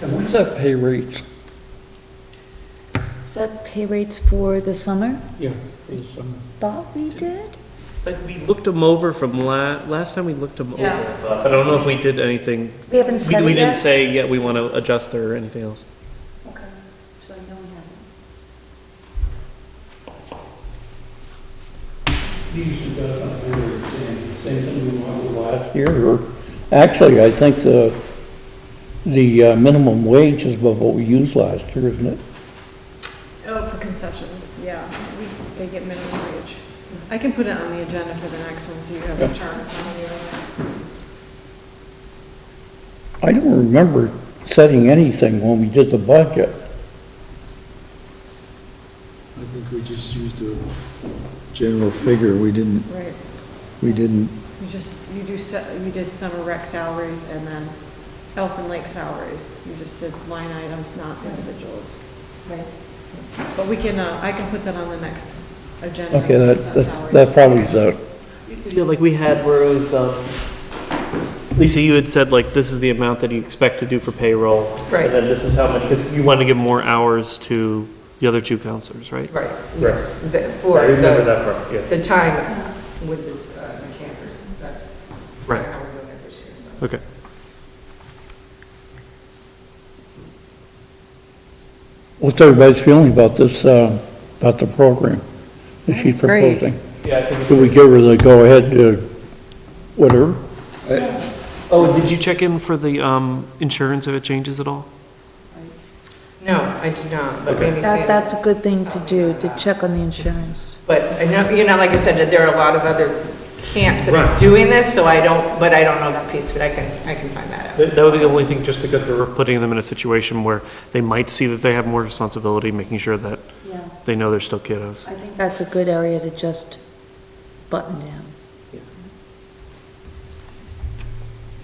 And what's that pay rate? Set pay rates for the summer, Yeah, um, for the summer. thought we did? Like, we looked them over from la, last time we looked them over, but I don't know if we did anything. We haven't We set we it didn't yet? say, yeah, we want to adjust or anything else. Okay, so I know we haven't. These are the, uh, same, same thing we wanted last year. Actually, I think the, the uh, minimum wage is about what we used last year, isn't it? Oh, for concessions, yeah, we, they get minimum wage. I can put it on the agenda for the next one, so you have a chart in front of I don't remember setting anything when we did the budget. I think we just used a general figure, we didn't, you. Right, we didn't, you just, you do, se- you did summer rec salaries and then Elfin Lake salaries. You just did line items, not individuals. Right. But we can, uh, I can put that on the next agenda. Okay, that, consent that- salaries. that probably is out. Yeah, like we had where it was, um, Lisa, you had said like, this is the amount that you expect to do for payroll. Right. And then this is how many, because you want to give more hours to the other two counselors, right? Right. Right. The- For the, that part, yeah. the time with this, uh, the campers, that's. Right. how we're doing it this year, so. Okay. What's everybody's feeling about this, uh, about the program that she's great. proposing? Yeah, I think it's- Do we give her the go-ahead to whatever? Oh, did you check in for the um, insurance if it changes at all? No, I do not, but maybe. That, Sam- that's a good thing to do, to check on the insurance. But, I know- you know, like I said, that there are a lot of other camps that Right. are doing this, so I don't, but I don't know that piece, but I can, I can find that out. That that would be the only thing, just because we were putting them in a situation where they might see that they have more responsibility, making sure that Yeah, they know they're still kiddos. I think that's a good area to just button down.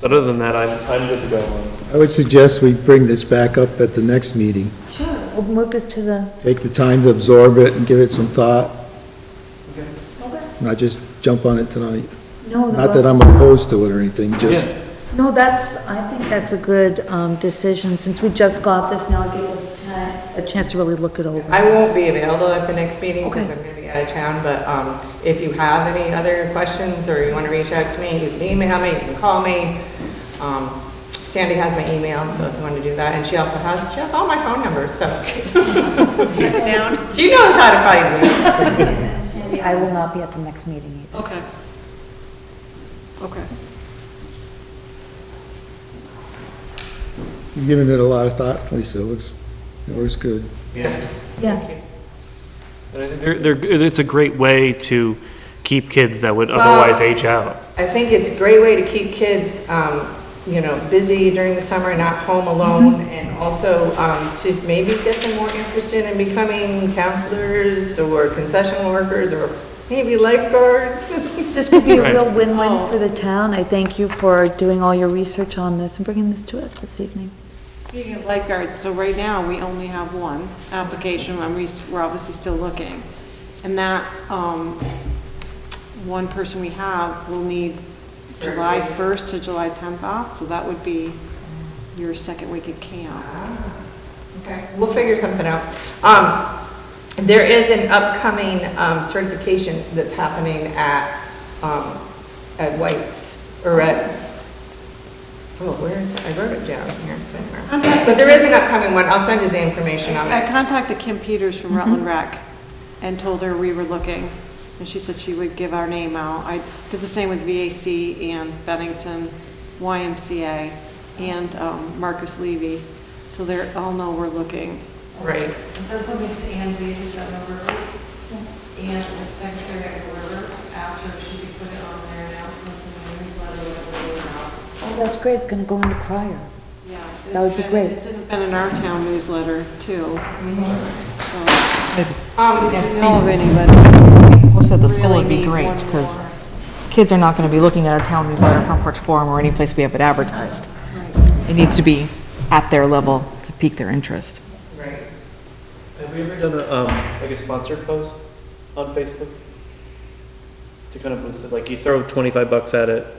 But other than that, I'm, I'm good to go. I would suggest we bring this back up at the next meeting. We'll move this to the, Take the time to absorb it and give it some thought, not just jump on it tonight. no, Not that no, I'm opposed to it or anything, just, no, that's, I think that's a good, um, decision, since we just got this, now it gives us a chance- a chance to really look it over. I won't be available at the next meeting because Okay. I'm going to be out of town, but um, if you have any other questions or you want to reach out to me, you can email me, you can call me. Um, Sandy has my email, so if you want to do that, and she also has, she has all my phone numbers, so. She knows how to find me. Sandy, I will not be at the next meeting either. Okay. Okay. you've given it a lot of thought, Lisa, it looks, it looks good. Yeah. Yes. Uh, They're, they're, it's a great way to keep kids that would otherwise age out. I think it's a great way to keep kids, um, you know, busy during the summer, not home alone, and also um, to maybe get them more interested in becoming counselors or concession workers or maybe lifeguards. This could be a Right. real win-win Oh. for the town. I thank you for doing all your research on this and bringing this to us this evening. Speaking of lifeguards, so right now, we only have one application, and we, we're obviously still looking. And that, um, one person we have will need July 1st to July 10th off, so that would be your second week of camp. Okay, we'll figure something out. Um, there is an upcoming, um, certification that's happening at, um, at White's, or at, oh, where is, I wrote it down here somewhere. But there is an upcoming one, I'll send you the information on I it. contacted Kim Peters from Rutland Rec and told her we were looking, and she said she would give our name out. I did the same with VAC and Bennington, YMCA, and um, Marcus Levy, so they're, all know we're looking. Right. sent something to Ann Bates, that number, Mm-hmm. and the secretary at River asked her if she could put it on their announcements and their newsletter, whatever, or not. Oh, that's great. It's gonna go into crier. Yeah. That would be it's been- great. It's been in our town newsletter, too. Mm-hmm. So, Um, if you know of anybody. Also, the school would really be need great, one because more. kids are not going to be looking at our town newsletter, front porch forum, or any place we have it advertised. It needs to be at their level to pique their interest. right. Have we ever done a, um, like a sponsored post on Facebook? To kind of boost it, like you throw twenty-five bucks at it,